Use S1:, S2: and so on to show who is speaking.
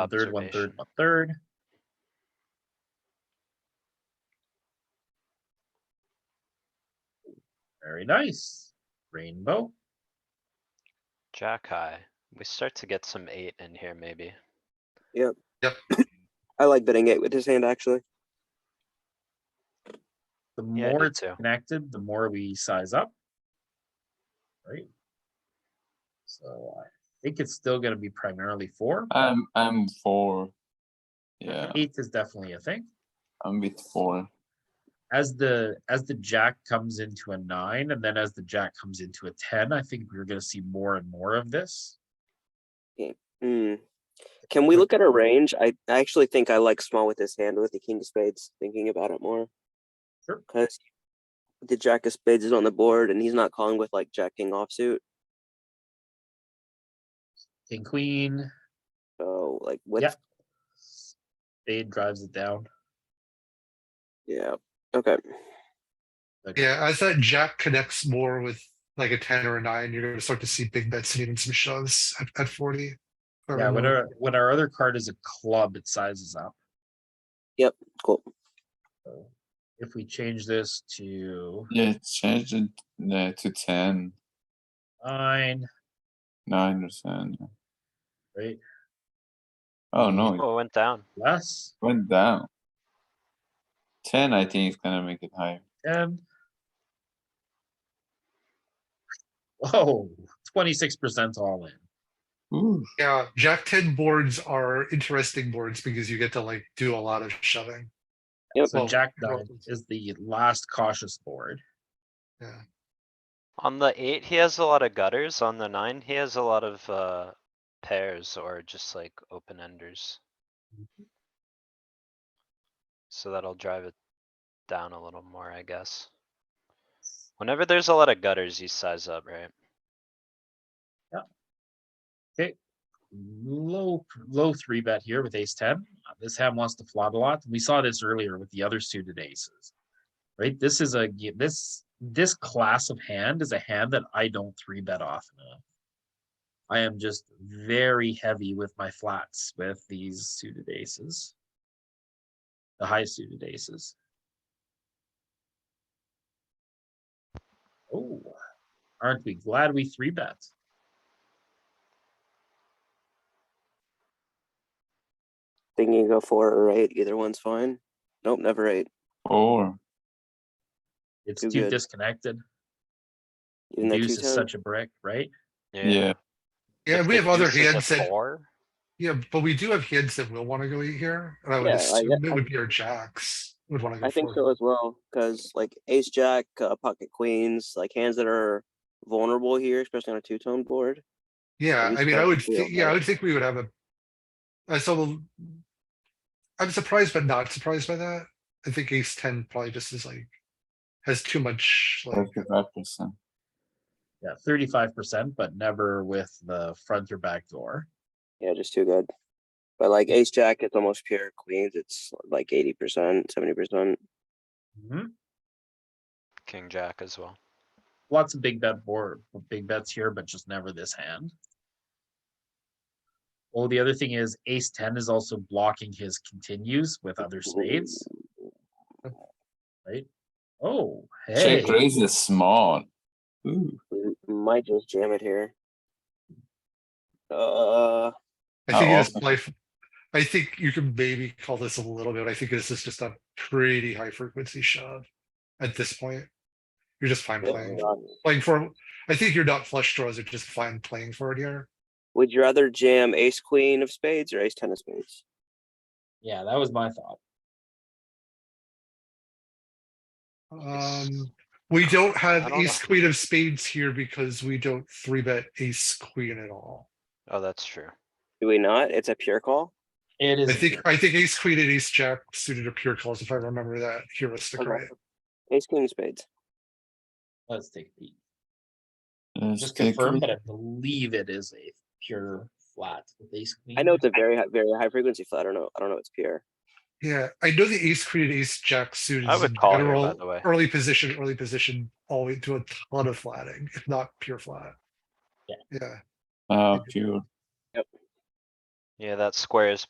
S1: one third, one third,
S2: Observation.
S1: one third. Very nice. Rainbow.
S2: Jack high. We start to get some eight in here maybe.
S3: I like betting eight with his hand actually.
S1: The
S2: Yeah, I
S1: more
S2: do
S1: it's
S2: too.
S1: connected, the more we size up. Right? So I think it's still gonna be primarily four. but
S4: I'm I'm four. Yeah,
S1: Eight is definitely a thing.
S4: I'm with four.
S1: As the, as the jack comes into a nine and then as the jack comes into a ten, I think we're gonna see more and more of this.
S3: Hmm. Can we look at our range? I, I actually think I like small with his hand with the king of spades, thinking about it more.
S1: Sure.
S3: Because the jack of spades is on the board and he's not calling with like jack king offsuit.
S1: King, queen,
S3: So like with
S1: Yeah. spade drives it down.
S3: yeah. Okay.
S5: Yeah, as that jack connects more with like a ten or a nine, you're gonna start to see big bets and even some shoves at, at forty. or
S1: Yeah, when
S5: more.
S1: our, when our other card is a club, it sizes up.
S3: Cool.
S1: So If we change this to
S4: Yeah, change it uh, to ten,
S1: nine,
S4: nine or ten. yeah.
S1: right,
S4: Oh no, it
S2: Oh, it went down.
S1: less,
S4: went down. Ten, I think is gonna make it higher.
S1: ten. Whoa, twenty-six percent all in.
S4: Ooh,
S5: Yeah, jack ten boards are interesting boards because you get to like do a lot of shoving.
S3: Yep.
S1: So
S5: Well,
S1: Jack
S5: well-
S1: nine is the last cautious board.
S2: On the eight, he has a lot of gutters. On the nine, he has a lot of uh pairs or just like open enders.
S4: Mm-hmm.
S2: So that'll drive it down a little more, I guess. Whenever there's a lot of gutters, you size up, right?
S1: Low, low three bet here with ace ten. Uh, This hand wants to flop a lot. We saw this earlier with the other suited aces. Right? This is a, g- this, this class of hand is a hand that I don't three bet often enough. I am just very heavy with my flats with these suited aces. The high suited aces. Oh, aren't we glad we three bet?
S3: Thinking go four or eight, either one's fine. Nope, never eight.
S4: four.
S1: It's
S3: Too
S1: too
S3: good.
S1: disconnected.
S3: Even though two
S1: Deuce is
S3: times.
S1: such a brick, right?
S4: Yeah,
S5: Yeah,
S2: If
S5: we
S2: the
S5: have other
S2: deuce is a
S5: hands that,
S2: four,
S5: yeah, but we do have hands that will wanna go eight here, and I would
S3: Yeah, I-
S5: assume it
S3: I-
S5: would be our jacks would wanna go
S3: I think so
S5: forward.
S3: as well, because like ace jack, uh, pocket queens, like hands that are vulnerable here, especially on a two tone board.
S5: Yeah,
S3: we
S5: I mean, I
S3: start
S5: would,
S3: to feel
S5: thi- yeah, I
S3: that.
S5: would think we would have a. I still. I'm surprised but not surprised by that. I think ace ten probably just is like. Has too much like,
S4: thirty-five percent.
S1: Yeah, thirty-five percent, but never with the front or back door.
S3: Yeah, just too good. But like ace jack, it's almost pure queens. It's like eighty percent, seventy percent.
S1: Mhm.
S2: king jack as well.
S1: Lots of big bet board, big bets here, but just never this hand. Oh, the other thing is ace ten is also blocking his continues with other spades, right? Oh, hey,
S4: Check raise is small. Ooh,
S3: Mm, Might just jam it here. Uh,
S5: I think
S4: Oh,
S5: it's
S4: awesome.
S5: life. I think you can maybe call this a little bit. I think this is just a pretty high frequency shove. At this point. You're just fine
S3: would
S5: playing,
S3: you not-
S5: playing for, I think your not flush draws are just fine playing for it here.
S3: would you rather jam ace queen of spades or ace ten of spades?
S1: yeah, that was my thought.
S5: Um, we don't have
S2: don't know.
S5: ace queen of spades here because we don't three bet ace queen at all.
S2: Oh, that's true.
S3: Do we not? It's a pure call.
S1: It is.
S5: I
S1: a
S5: think,
S1: pure-
S5: I think ace queen and ace jack suited are pure calls if I remember that heuristic
S3: Okay.
S5: right.
S3: Ace queen of spades.
S1: Let's take a peek.
S4: let's
S1: Just
S4: take
S1: confirm,
S4: it.
S1: but I believe it is a pure flat with ace queen.
S3: I know it's a very high, very high frequency flat. I don't know. I don't know. It's pure.
S5: Yeah, I know the ace queen and ace jack suited
S2: I
S5: is
S2: would
S5: in
S2: call here, by
S5: general
S2: the way.
S5: early position, early position, always do a ton of flatting, if not pure flat.
S1: Yeah.
S5: Yeah,
S4: Ah, pure.
S2: Yeah, that square is